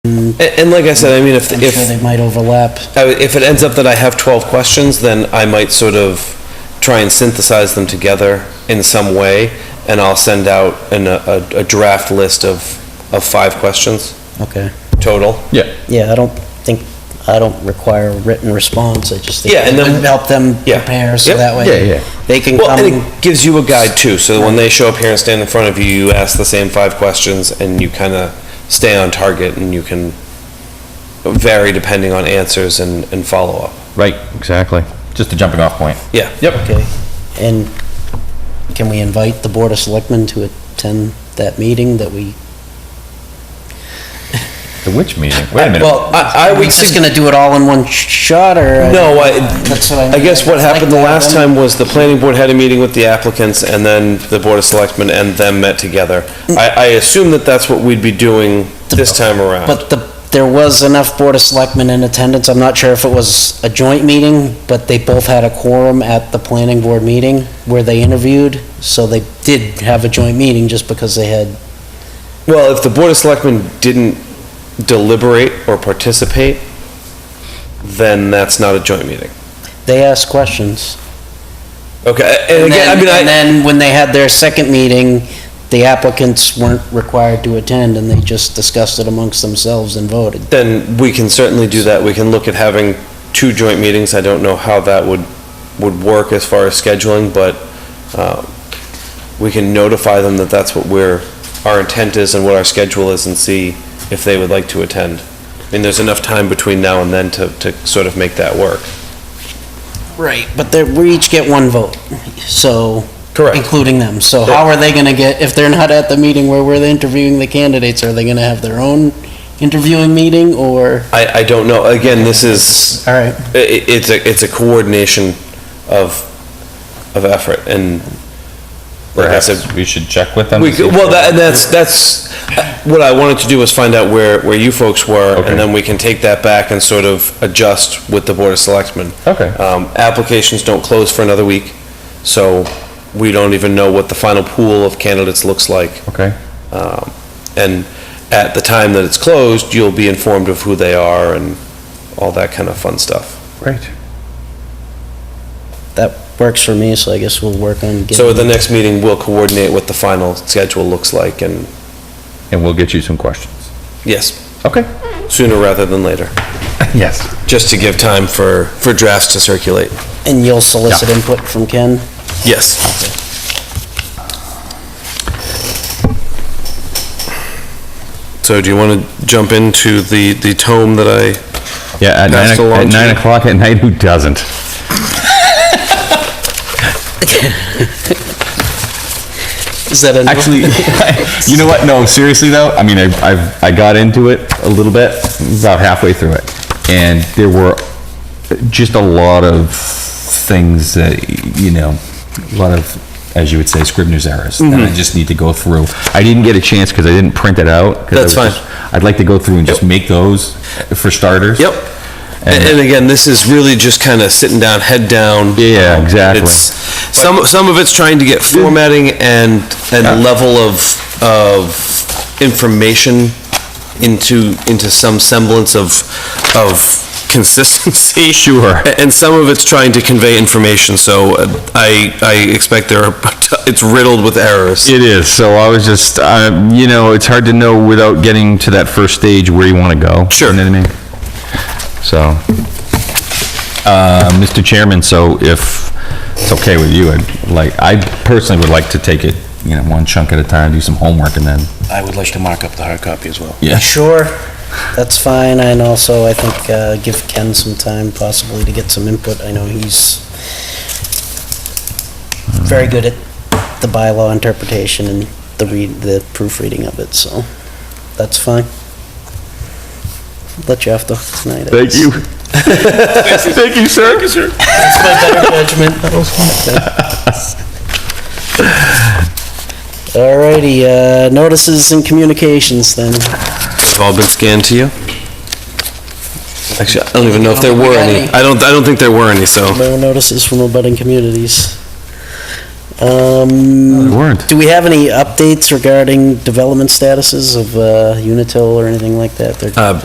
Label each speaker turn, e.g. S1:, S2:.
S1: And, and like I said, I mean, if,
S2: I'm
S1: if,
S2: sure they might overlap.
S1: I would- if it ends up that I have 12 questions, then I might sort of try and synthesize them together in some way, and I'll send out an, a, a draft list of, of five questions
S2: Okay.
S1: total.
S3: Yeah.
S2: Yeah, I don't think, I don't require a written response, I just think
S1: Yeah, and
S2: it
S1: then-
S2: would help them
S1: Yeah.
S2: prepare, so
S1: Yep.
S2: that
S3: Yeah, yeah.
S2: way they can
S1: Well, and
S2: come,
S1: it gives you a guide too, so when they show up here and stand in front of you, you ask the same five questions, and you kind of stay on target, and you can vary depending on answers and, and follow-up.
S3: Right, exactly. Just a jumping off point.
S1: Yeah.
S3: Yep.
S2: okay. And can we invite the Board of Selectmen to attend that meeting that we?
S3: The which meeting? Wait a minute.
S1: Well, I, I
S2: Are we
S1: would
S2: just gonna do it all in one sh- shot, or?
S1: No, I,
S2: That's what I
S1: I guess
S2: mean.
S1: what happened the
S2: Like that
S1: last
S2: one.
S1: time was the planning board had a meeting with the applicants, and then the board of selectmen and them met together. I, I assume that that's what we'd be doing this time around.
S2: Mm. But the, there was enough Board of Selectmen in attendance, I'm not sure if it was a joint meeting, but they both had a quorum at the planning board meeting where they interviewed, so they did have a joint meeting just because they had,
S1: Well, if the board of selectmen didn't deliberate or participate, then that's not a joint meeting.
S2: they asked questions.
S1: Okay, and again, I mean,
S2: And
S1: I,
S2: then when they had their second meeting, the applicants weren't required to attend and they just discussed it amongst themselves and voted.
S1: then we can certainly do that. We can look at having two joint meetings. I don't know how that would, would work as far as scheduling, but, uh, we can notify them that that's what we're, our intent is and what our schedule is and see if they would like to attend. I mean, there's enough time between now and then to, to sort of make that work.
S2: Right. But they, we each get one vote, so.
S1: Correct.
S2: Including them, so how are they gonna get, if they're not at the meeting where we're interviewing the candidates, are they gonna have their own interviewing meeting, or?
S1: I, I don't know. Again, this is, i-
S2: All right.
S1: i- it's a, it's a coordination of, of effort and. like I said,
S3: Perhaps we should check with them. to
S1: We,
S3: see
S1: could-
S3: if
S1: well,
S3: they're-
S1: that, and that's, that's, what I wanted to do was find out where, where you folks were,
S3: Okay.
S1: and then we can take that back and sort of adjust with the Board of Selectmen.
S3: Okay.
S1: Um, applications don't close for another week, so we don't even know what the final pool of candidates looks like.
S3: Okay.
S1: Um, and at the time that it's closed, you'll be informed of who they are and all that kind of fun stuff.
S3: Great.
S2: That works for me, so I guess we'll work on getting.
S1: So at the next meeting, we'll coordinate what the final schedule looks like, and
S3: And we'll get you some questions.
S1: yes,
S3: Okay.
S1: sooner rather than later.
S3: Yes.
S1: just to give time for, for drafts to circulate.
S2: And you'll solicit
S3: Yeah.
S2: input from Ken?
S1: Yes. So do you want to jump into the, the tome that I,
S3: Yeah, at nine,
S1: Passed
S3: o-
S1: along
S3: at
S1: to
S3: nine
S1: you.
S3: o'clock at night, who doesn't?
S2: Is that a?
S3: Actually, you know what? No, seriously though, I mean, I, I've, I got into it a little bit, about halfway through it. And there were just a lot of things that, you know, a lot of, as you would say, scribner's errors that
S1: Mm-hmm.
S3: I just need to go through. I didn't get a chance because I didn't print it out. 'cause I
S1: That's
S3: was
S1: fine.
S3: just- I'd like to go through and just make those for starters.
S1: Yep. and and again, this is really just kind of sitting down, head down. Um,
S3: Yeah, exactly.
S1: It's, some, some of it's trying to get formatting and,
S3: Yeah.
S1: and level of, of information into, into some semblance of, of consistency.
S3: Sure.
S1: A- And some of it's trying to convey information, so uh, I, I expect there are, it's riddled with errors.
S3: It is, so I was just, uh, you know, it's hard to know without getting to that first stage where you want to go.
S1: Sure.
S3: You know what I mean? So, uh, Mr. Chairman, so if it's okay with you, I'd like, I personally would like to take it, you know, one chunk at a time, do some homework and then.
S4: I would like to mark up the hard copy as well.
S3: Yeah.
S2: Sure, that's fine, and also I think uh, give Ken some time possibly to get some input. I know he's very good at the bylaw interpretation and the read, the proofreading of it, so that's fine. Let you off the hook tonight. I guess.
S3: Thank you, sir. Thank you, sir.
S2: That's my better judgment. Alrighty, uh, notices and communications then.
S1: Have all been scanned to you? Actually, I don't even know if there were any. I don't, I don't think there were any, so.
S2: No notices from abutting communities. Um,
S3: There weren't.
S2: do we have any updates regarding development statuses of, uh, Unitil or anything like that? They're-
S1: Uh,